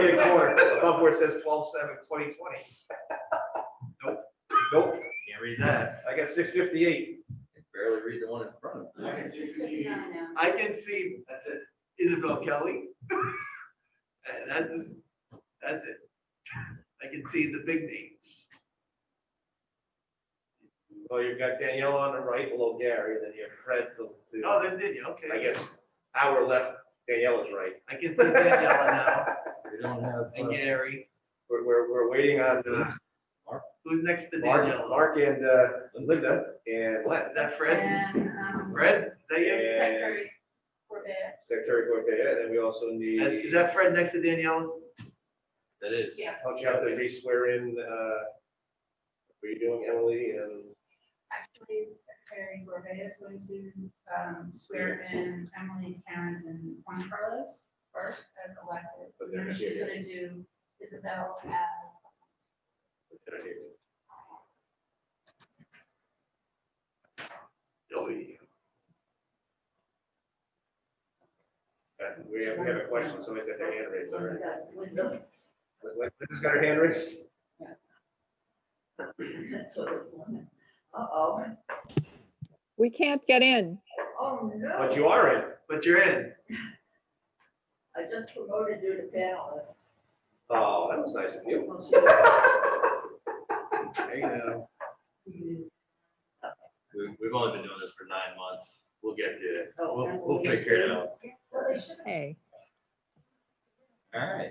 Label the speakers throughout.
Speaker 1: Here corner, above where it says 12-7-2020. Nope. Nope,
Speaker 2: Can't read that.
Speaker 1: I got six fifty-eight.
Speaker 2: Can Barely read the one in front of me.
Speaker 3: I can see, I can see uh, Isabel Kelly. And that's, that's it. I can see the big names.
Speaker 1: Well, you've got Danielle on the right below Gary, then you have Fred to, to-
Speaker 3: Oh, there's Danielle, okay.
Speaker 1: I guess, our left, Danielle is right.
Speaker 3: I can see Danielle now
Speaker 2: We don't have.
Speaker 3: and
Speaker 2: uh,
Speaker 3: Gary.
Speaker 1: We're, we're, we're waiting on uh,
Speaker 3: Who's next to
Speaker 1: Mark,
Speaker 3: Danielle?
Speaker 1: Mark and uh, Linda and Len.
Speaker 3: Is that Fred?
Speaker 4: And, um,
Speaker 3: Fred, is that you?
Speaker 1: Yeah.
Speaker 4: Secretary Corbett,
Speaker 1: Secretary Goyette, and then we also need,
Speaker 3: That- Is that Fred next to Danielle?
Speaker 2: That is.
Speaker 4: yes,
Speaker 1: help you out to re-swear in, uh, what are you doing, Emily, and
Speaker 4: actually Secretary Corbett is going to um, swear in Emily, Karen, and Juan Carlos first as elected.
Speaker 1: But they're
Speaker 4: And
Speaker 1: not
Speaker 4: then
Speaker 1: here
Speaker 4: she's
Speaker 1: yet.
Speaker 4: gonna do Isabel as.
Speaker 3: Oh, yeah.
Speaker 1: Uh, We have, we have a question, somebody's got their hand raised already.
Speaker 4: Linda.
Speaker 1: Linda's got her hand raised.
Speaker 4: That's what it's on. Uh-oh.
Speaker 5: We can't get in.
Speaker 4: Oh, no.
Speaker 1: But you are in.
Speaker 3: But you're in.
Speaker 4: I just promoted you to panelist.
Speaker 1: Oh, that was nice of you.
Speaker 3: There you go.
Speaker 2: We, we've only been doing this for nine months. We'll get to it.
Speaker 4: Oh,
Speaker 2: We'll,
Speaker 4: and
Speaker 2: we'll
Speaker 4: we'll get
Speaker 2: figure it
Speaker 4: to it.
Speaker 2: out.
Speaker 4: Well, they should
Speaker 5: Hey,
Speaker 2: All right.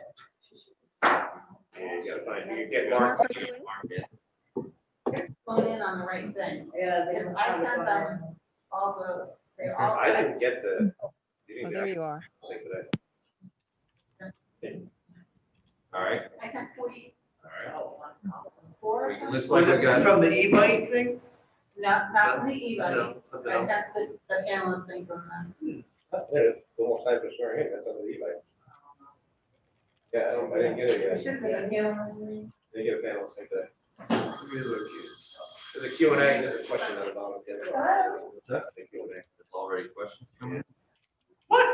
Speaker 1: Yeah, You gotta find, you can
Speaker 4: have.
Speaker 1: get Mark.
Speaker 4: Phone in on the right thing.
Speaker 6: Yeah. they
Speaker 4: Because
Speaker 6: don't
Speaker 4: I
Speaker 6: have it
Speaker 4: sent them
Speaker 6: on there.
Speaker 4: all the, they're all.
Speaker 1: I didn't get the. you
Speaker 5: oh,
Speaker 1: didn't
Speaker 5: there
Speaker 1: get
Speaker 5: you are.
Speaker 1: the thing for
Speaker 2: All right,
Speaker 4: I sent forty,
Speaker 2: all
Speaker 4: oh, one, four
Speaker 2: right.
Speaker 4: of
Speaker 2: We-
Speaker 4: them.
Speaker 2: Looks
Speaker 3: Was
Speaker 2: like we
Speaker 3: it
Speaker 2: got,
Speaker 3: from the e-bike thing?
Speaker 4: Not, not from the e-bike.
Speaker 3: No, something
Speaker 4: I
Speaker 3: else.
Speaker 4: sent the, the analyst thing from them.
Speaker 1: that. There's one more time for swearing in, that's on the e-bike. Yeah, I don't, I didn't get it yet.
Speaker 4: Should be an analyst.
Speaker 1: They get a panel, it's like that. There's a Q and A, and there's a question at the bottom. of the other.
Speaker 2: What's that?
Speaker 1: The Q and A.
Speaker 2: it's already questions. coming in.
Speaker 3: What?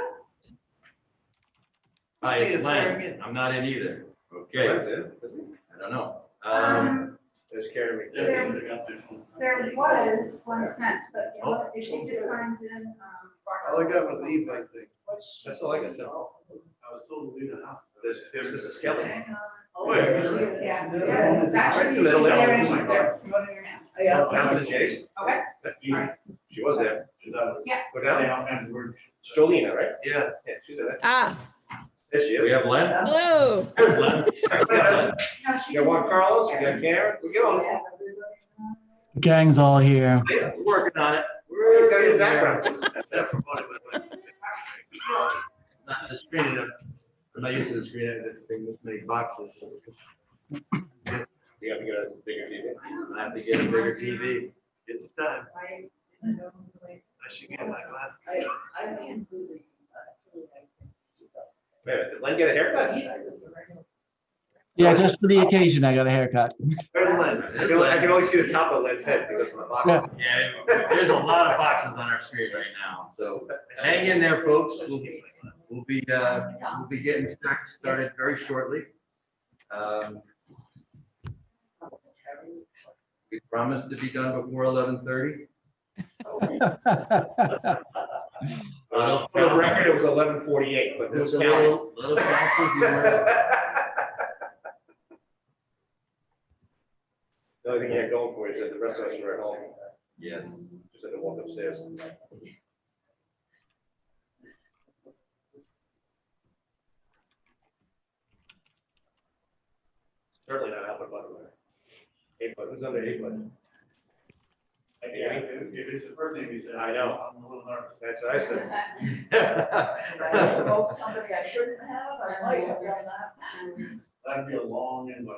Speaker 2: Hi,
Speaker 3: Hey,
Speaker 2: it's
Speaker 3: it's Karen
Speaker 2: Lynn.
Speaker 3: again.
Speaker 2: I'm not in either. Okay,
Speaker 1: That's it, isn't it?
Speaker 2: I don't know. Um,
Speaker 1: There's Karen.
Speaker 4: There-
Speaker 1: McDaniel.
Speaker 4: There was one sent, but you know, if she just signs in, um.
Speaker 3: All I got was the e-bike thing.
Speaker 1: That's all I got, Tim.
Speaker 3: I was told to leave the house.
Speaker 1: There's, there's Mrs. Kelly.
Speaker 3: Where?
Speaker 4: Yeah, yeah, actually, she's
Speaker 1: Middle
Speaker 4: there,
Speaker 1: down.
Speaker 4: she's there, promoting her now.
Speaker 6: Yeah.
Speaker 1: Down to Jay's.
Speaker 4: Okay,
Speaker 1: She was there.
Speaker 4: Yeah.
Speaker 1: Go down. Jolena, right?
Speaker 3: Yeah.
Speaker 1: Yeah, she's there.
Speaker 5: Ah,
Speaker 1: There she
Speaker 2: we
Speaker 1: is.
Speaker 2: have Len.
Speaker 5: hello.
Speaker 2: There's Len.
Speaker 4: no, she.
Speaker 1: You got Juan Carlos, you got Karen, we're going.
Speaker 4: Yeah.
Speaker 7: Gang's all here.
Speaker 2: Yeah, we're Working on it.
Speaker 1: He's got his background.
Speaker 3: That promoted my life.
Speaker 2: Not the screen, I'm not used to the screen, I have to bring this many boxes.
Speaker 1: You gotta get a bigger TV.
Speaker 2: I have to get a bigger TV.
Speaker 3: It's time.
Speaker 6: I didn't know the way-
Speaker 3: I should get my
Speaker 6: I,
Speaker 3: glasses.
Speaker 6: I didn't really, uh, really like it.
Speaker 1: Wait, a minute, did Len get a
Speaker 6: But
Speaker 1: haircut?
Speaker 6: he- I was a regular-
Speaker 7: Yeah, just for the occasion, I got a haircut.
Speaker 3: Where's
Speaker 1: I
Speaker 3: Liz?
Speaker 1: can only- I can only see the top of Len's head because of the box.
Speaker 2: Yeah, there's a lot of boxes on our screen right now, so hang in there, folks. We'll, we'll be, uh, we'll be getting start- started very shortly. Um, We promised to be done before eleven thirty.
Speaker 1: Uh, For the record, it was eleven forty-eight, but this
Speaker 2: There's a
Speaker 1: counts.
Speaker 2: little, little boxes in there.
Speaker 1: The only thing you had going for you is that the rest of us were at home,
Speaker 2: Yes.
Speaker 1: just had to walk upstairs. uh, Certainly not Albert Butler. Eight foot, who's under eight foot?
Speaker 8: Yeah, if if it's the first name you said.
Speaker 1: I know.
Speaker 8: I'm a little nervous.
Speaker 1: That's what I said.
Speaker 6: I wrote Somebody I shouldn't have, I might have done that.
Speaker 8: That'd be a long invite.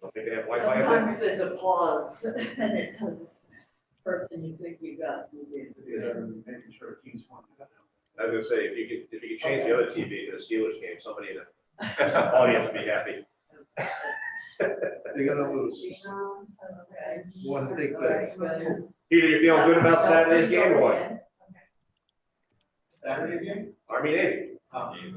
Speaker 1: Don't think they have Wi-Fi up there.
Speaker 6: Sometimes there's a pause and it doesn't, person you think you got, you did.
Speaker 8: Making sure King's one.
Speaker 1: I was gonna say, if you could, if you could change the other TV to the Steelers game, somebody in the audience would be happy.
Speaker 3: They're gonna lose.
Speaker 6: Okay.
Speaker 3: One thing, but
Speaker 6: Well,
Speaker 1: Peter, you feeling good about Saturday's game or what?
Speaker 8: Saturday game?
Speaker 1: Army Navy. Um,